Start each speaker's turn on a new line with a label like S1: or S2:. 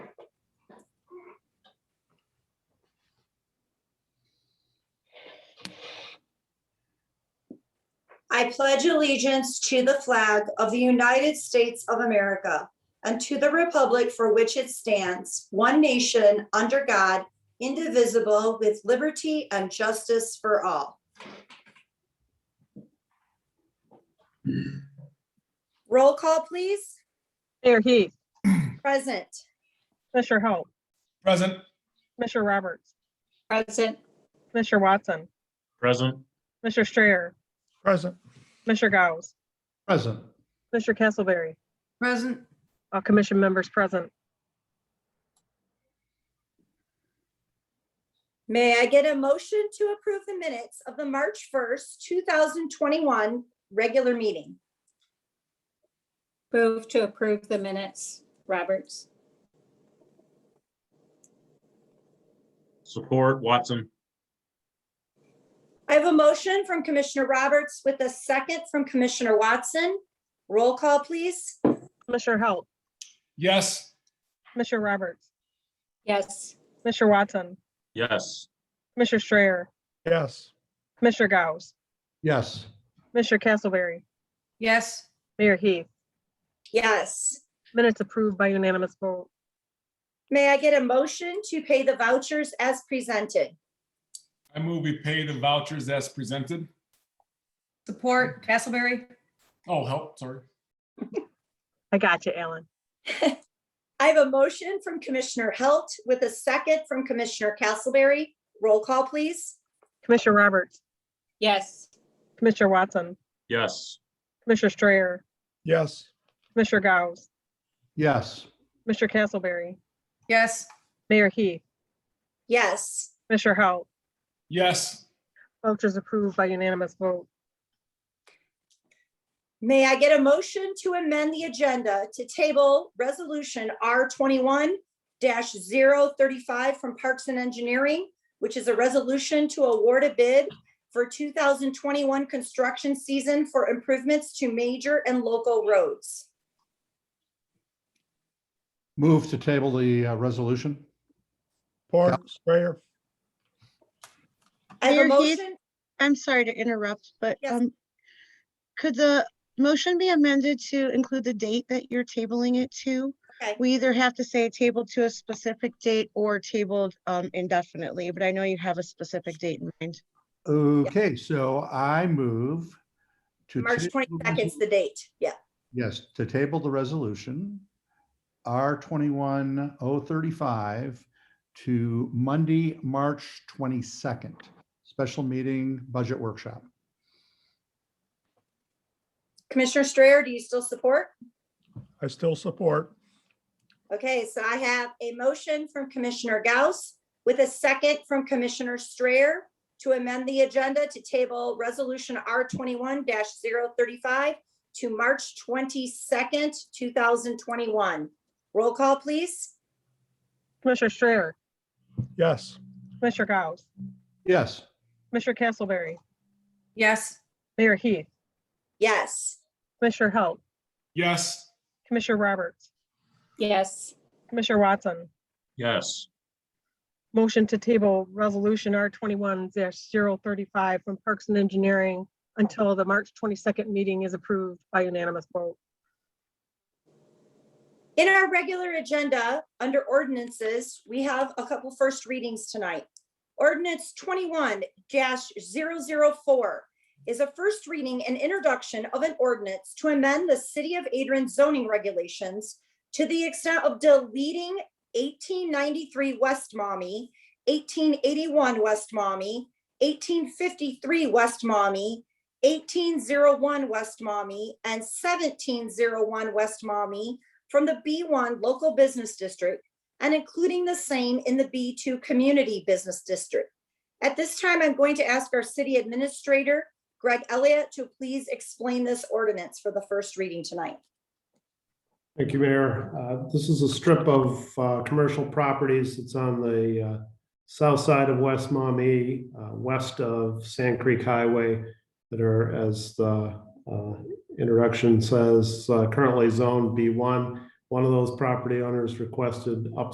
S1: I pledge allegiance to the flag of the United States of America and to the republic for which it stands, one nation, under God, indivisible, with liberty and justice for all. Roll call, please.
S2: Mayor Heath,
S1: Present.
S2: Mr. Hope,
S3: Present.
S2: Mr. Roberts,
S4: Present.
S2: Mr. Watson,
S5: Present.
S2: Mr. Strayer,
S3: Present.
S2: Mr. Gauss,
S3: Present.
S2: Mr. Castleberry,
S4: Present.
S2: all commission members present.
S1: May I get a motion to approve the minutes of the March 1st, 2021 regular meeting?
S4: Move to approve the minutes. Roberts.
S5: Support Watson.
S1: I have a motion from Commissioner Roberts with a second from Commissioner Watson. Roll call, please.
S2: Mr. Hope,
S3: Yes.
S2: Mr. Roberts,
S4: Yes.
S2: Mr. Watson,
S5: Yes.
S2: Mr. Strayer,
S3: Yes.
S2: Mr. Gauss,
S3: Yes.
S2: Mr. Castleberry,
S4: Yes.
S2: Mayor Heath,
S1: Yes.
S2: minutes approved by unanimous vote.
S1: May I get a motion to pay the vouchers as presented?
S3: I move we pay the vouchers as presented.
S6: Support Castleberry.
S3: Oh, help, sorry.
S2: I got you, Alan.
S1: I have a motion from Commissioner Halt with a second from Commissioner Castleberry. Roll call, please.
S2: Commissioner Roberts,
S4: Yes.
S2: Commissioner Watson,
S5: Yes.
S2: Commissioner Strayer,
S3: Yes.
S2: Mr. Gauss,
S3: Yes.
S2: Mr. Castleberry,
S6: Yes.
S2: Mayor Heath,
S1: Yes.
S2: Mr. Hope,
S3: Yes.
S2: vouchers approved by unanimous vote.
S1: May I get a motion to amend the agenda to table Resolution R twenty-one 35 from Parks and Engineering, which is a resolution to award a bid for two thousand twenty-one construction season for improvements to major and local roads.
S7: Move to table the uh, resolution.
S3: Port sprayer.
S1: I have a
S8: Mayor Heath?
S1: motion.
S8: I'm sorry to interrupt, but
S1: Yes.
S8: um, could the motion be amended to include the date that you're tabling it to?
S1: Okay.
S8: We either have to say tabled to a specific date or tabled um, indefinitely, but I know you have a specific date in mind.
S7: Okay, so I move to.
S1: March
S7: table-
S1: 22nd's the date, yeah.
S7: Yes, to table the resolution, R twenty-one oh thirty-five to Monday, March twenty-second, special meeting budget workshop.
S1: Commissioner Strayer, do you still support?
S3: I still support.
S1: Okay, so I have a motion from Commissioner Gauss with a second from Commissioner Strayer to amend the agenda to table Resolution R twenty-one 35 to March twenty-second, two thousand twenty-one. Roll call, please.
S2: Commissioner Strayer,
S3: Yes.
S2: Mr. Gauss,
S7: Yes,
S2: Mr. Castleberry,
S6: Yes.
S2: Mayor Heath,
S1: Yes.
S2: Commissioner Halt,
S3: Yes.
S2: Commissioner Roberts,
S4: Yes.
S2: Commissioner Watson,
S5: Yes.
S2: motion to table resolution R twenty-one 35 from Parks and Engineering until the March twenty-second meeting is approved by unanimous vote.
S1: In our regular agenda, under ordinances, we have a couple first readings tonight. Ordinance twenty-one 4 is a first reading and introduction of an ordinance to amend the City of Adrian zoning regulations to the extent of deleting eighteen ninety-three West Mommy, eighteen eighty-one West Mommy, eighteen fifty-three West Mommy, eighteen zero one West Mommy, and seventeen zero one West Mommy from the B1 Local Business District and including the same in the B2 Community Business District. At this time, I'm going to ask our City Administrator, Greg Elliott, to please explain this ordinance for the first reading tonight.
S9: Thank you, Mayor. Uh, This is a strip of uh, commercial properties. It's on the uh, south side of West Maumee, uh, west of Sand Creek Highway that are, as the uh, introduction says, uh, currently zoned B1. One of those property owners requested up